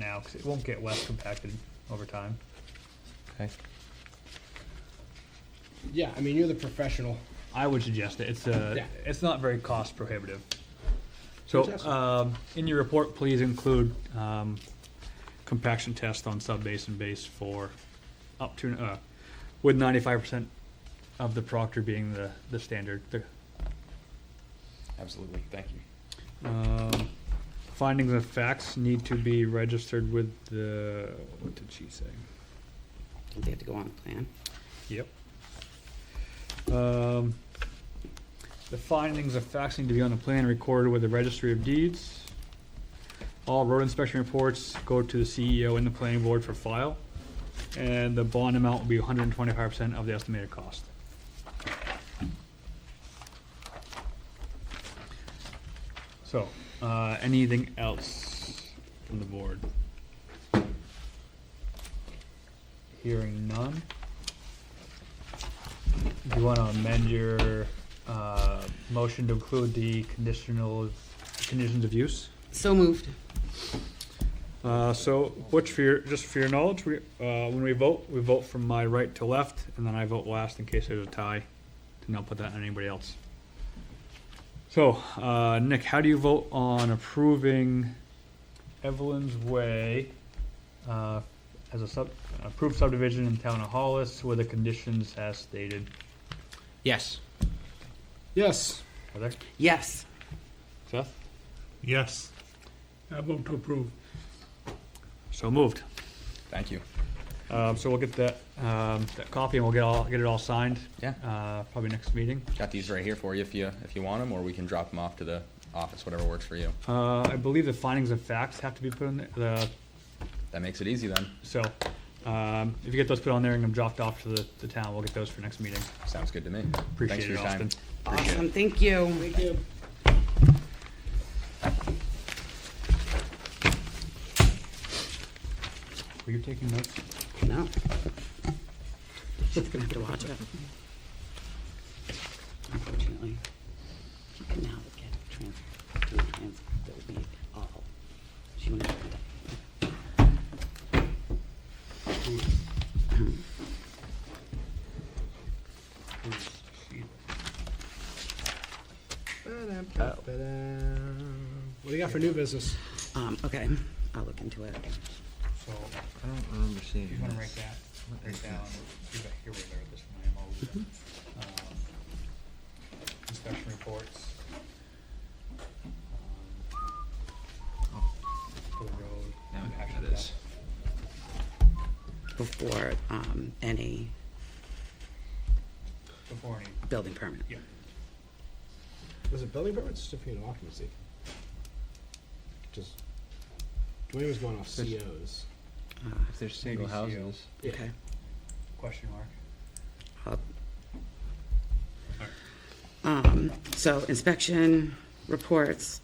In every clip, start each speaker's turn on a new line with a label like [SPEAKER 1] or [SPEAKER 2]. [SPEAKER 1] now because it won't get well compacted over time.
[SPEAKER 2] Okay.
[SPEAKER 3] Yeah, I mean, you're the professional.
[SPEAKER 1] I would suggest it. It's uh
[SPEAKER 3] Yeah.
[SPEAKER 1] it's not very cost prohibitive. So
[SPEAKER 3] Fantastic.
[SPEAKER 1] um, in your report, please include um, compaction test on sub-base and base for up to, uh, with ninety-five percent of the proctor being the, the standard. The,
[SPEAKER 2] Absolutely. Thank you.
[SPEAKER 1] um, Findings of facts need to be registered with the, what did she say?
[SPEAKER 4] Don't they have to go on the plan?
[SPEAKER 1] Yep. Um, The findings of facts need to be on the plan recorded with the registry of deeds. All road inspection reports go to the CEO and the planning board for file. And the bond amount will be hundred and twenty-five percent of the estimated cost. So, uh, anything else from the board? Hearing none. Do you want to amend your uh, motion to include the conditional, conditions of use?
[SPEAKER 4] So moved.
[SPEAKER 1] Uh, So, Butch, for your, just for your knowledge, we, uh, when we vote, we vote from my right to left, and then I vote last in case there's a tie, to not put that on anybody else. So, uh, Nick, how do you vote on approving Evelyn's Way uh, as a sub, approved subdivision in town of Hollis with the conditions as stated?
[SPEAKER 2] Yes.
[SPEAKER 3] Yes.
[SPEAKER 1] Are there?
[SPEAKER 4] Yes.
[SPEAKER 1] Seth?
[SPEAKER 5] Yes. I vote to approve.
[SPEAKER 1] So moved.
[SPEAKER 2] Thank you.
[SPEAKER 1] Um, so we'll get that, um, that copy and we'll get all, get it all signed,
[SPEAKER 2] Yeah.
[SPEAKER 1] uh, probably next meeting.
[SPEAKER 2] Got these right here for you if you if you want them, or we can drop them off to the office, whatever works for you.
[SPEAKER 1] Uh, I believe the findings of facts have to be put in the- the,
[SPEAKER 2] That makes it easy then.
[SPEAKER 1] so, um, if you get those put on there and dropped off to the, the town, we'll get those for next meeting.
[SPEAKER 2] Sounds good to me. Thanks
[SPEAKER 1] Appreciate
[SPEAKER 2] for
[SPEAKER 1] it,
[SPEAKER 2] your time.
[SPEAKER 1] Austin.
[SPEAKER 2] Appreciate it.
[SPEAKER 4] Awesome, thank you.
[SPEAKER 3] Thank you.
[SPEAKER 1] Were you taking notes?
[SPEAKER 4] No. She's gonna have to watch it. Unfortunately, she can now get trans, do a trans, that would be all. She wouldn't. have done
[SPEAKER 3] Oh,
[SPEAKER 4] Oh.
[SPEAKER 3] What do you got for new business?
[SPEAKER 4] that. Um, okay, I'll look into it.
[SPEAKER 1] So,
[SPEAKER 6] I don't remember seeing
[SPEAKER 1] if you wanna write that,
[SPEAKER 6] What
[SPEAKER 1] write
[SPEAKER 6] is
[SPEAKER 1] down,
[SPEAKER 6] this?
[SPEAKER 1] you're back here with her, this one, I am always, um, inspection Um, reports. um, For the road.
[SPEAKER 6] Now I know what
[SPEAKER 1] action
[SPEAKER 6] that is.
[SPEAKER 1] steps.
[SPEAKER 4] Before, um, any
[SPEAKER 1] Before any,
[SPEAKER 4] building permit.
[SPEAKER 1] yeah.
[SPEAKER 3] Was it building permit or certificate of occupancy? Just, Dwayne was going off COs.
[SPEAKER 6] If there's single
[SPEAKER 2] Single
[SPEAKER 6] houses.
[SPEAKER 1] houses.
[SPEAKER 3] Yeah.
[SPEAKER 4] Okay,
[SPEAKER 1] Question mark.
[SPEAKER 4] I'll
[SPEAKER 1] Alright.
[SPEAKER 4] Um, so inspection, reports,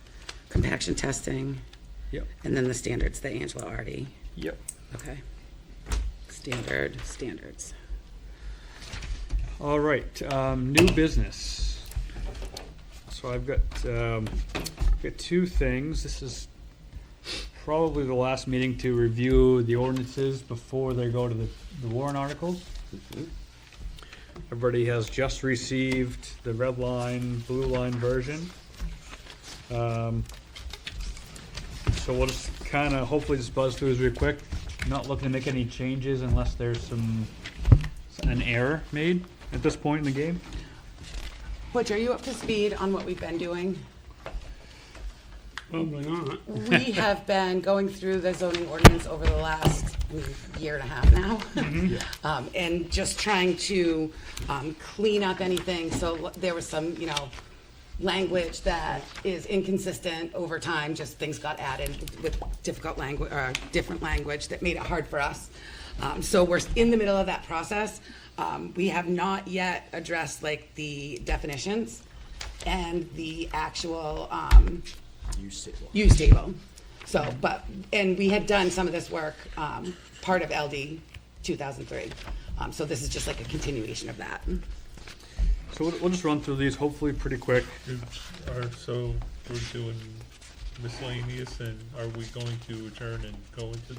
[SPEAKER 4] compaction testing,
[SPEAKER 1] Yep.
[SPEAKER 4] and then the standards that Angela already,
[SPEAKER 1] Yep.
[SPEAKER 4] okay? Standard, standards.
[SPEAKER 1] All right, um, new business. So I've got, um, got two things. This is probably the last meeting to review the ordinances before they go to the, the warrant articles. Everybody has just received the red line, blue line version. Um, so we'll just kind of hopefully just buzz through this real quick. Not looking to make any changes unless there's some an error made at this point in the game.
[SPEAKER 4] Butch, are you up to speed on what we've been doing?
[SPEAKER 5] Probably not.
[SPEAKER 4] We have been going through the zoning ordinance over the last mm, year and a half now. Um, and just trying to, um, clean up anything, so l- there was some, you know, language that is inconsistent over time, just things got added with difficult language, or different language that made it hard for us. Um, so we're in the middle of that process. Um, we have not yet addressed like the definitions and the actual, um, use table. So, but, and we had done some of this work, um, part of LD two thousand three. Um, so this is just like a continuation of that.
[SPEAKER 1] So we'll, we'll just run through these hopefully pretty quick.
[SPEAKER 5] Are, so we're doing miscellaneous and are we going to adjourn and go into